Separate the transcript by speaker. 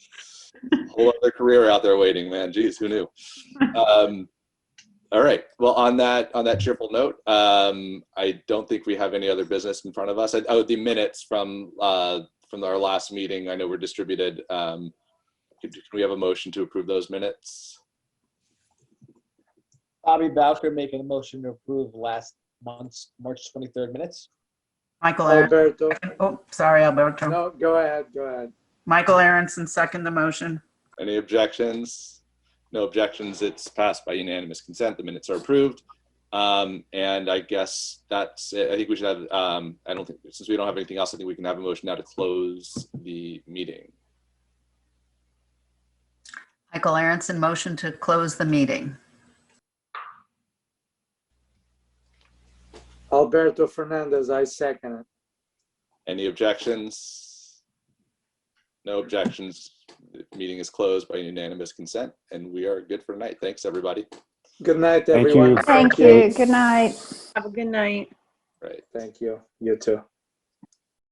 Speaker 1: whole other career out there waiting, man. Geez, who knew? Um, all right. Well, on that on that cheerful note, um, I don't think we have any other business in front of us. I, oh, the minutes from uh, from our last meeting. I know were distributed. Um, could- can we have a motion to approve those minutes?
Speaker 2: Bobby Bowker making a motion to approve last month's March 23rd minutes.
Speaker 3: Michael, Aaron-
Speaker 4: Alberto,
Speaker 3: oh, sorry, Alberto.
Speaker 4: no, go ahead, go ahead.
Speaker 3: Michael Aronson, second the motion.
Speaker 1: Any objections? No objections. It's passed by unanimous consent. The minutes are approved. Um, and I guess that's it. I think we should have, um, I don't think, since we don't have anything else, I think we can have a motion now to close the meeting.
Speaker 3: Michael Aronson, motion to close the meeting.
Speaker 4: Alberto Fernandez, I second it.
Speaker 1: Any objections? No objections. The Meeting is closed by unanimous consent and we are good for tonight. Thanks, everybody.
Speaker 4: Good night,
Speaker 5: Thank
Speaker 4: everyone.
Speaker 5: you.
Speaker 6: Thank you. Good night.
Speaker 7: Have a good night.
Speaker 1: Right.
Speaker 4: Thank you, you too.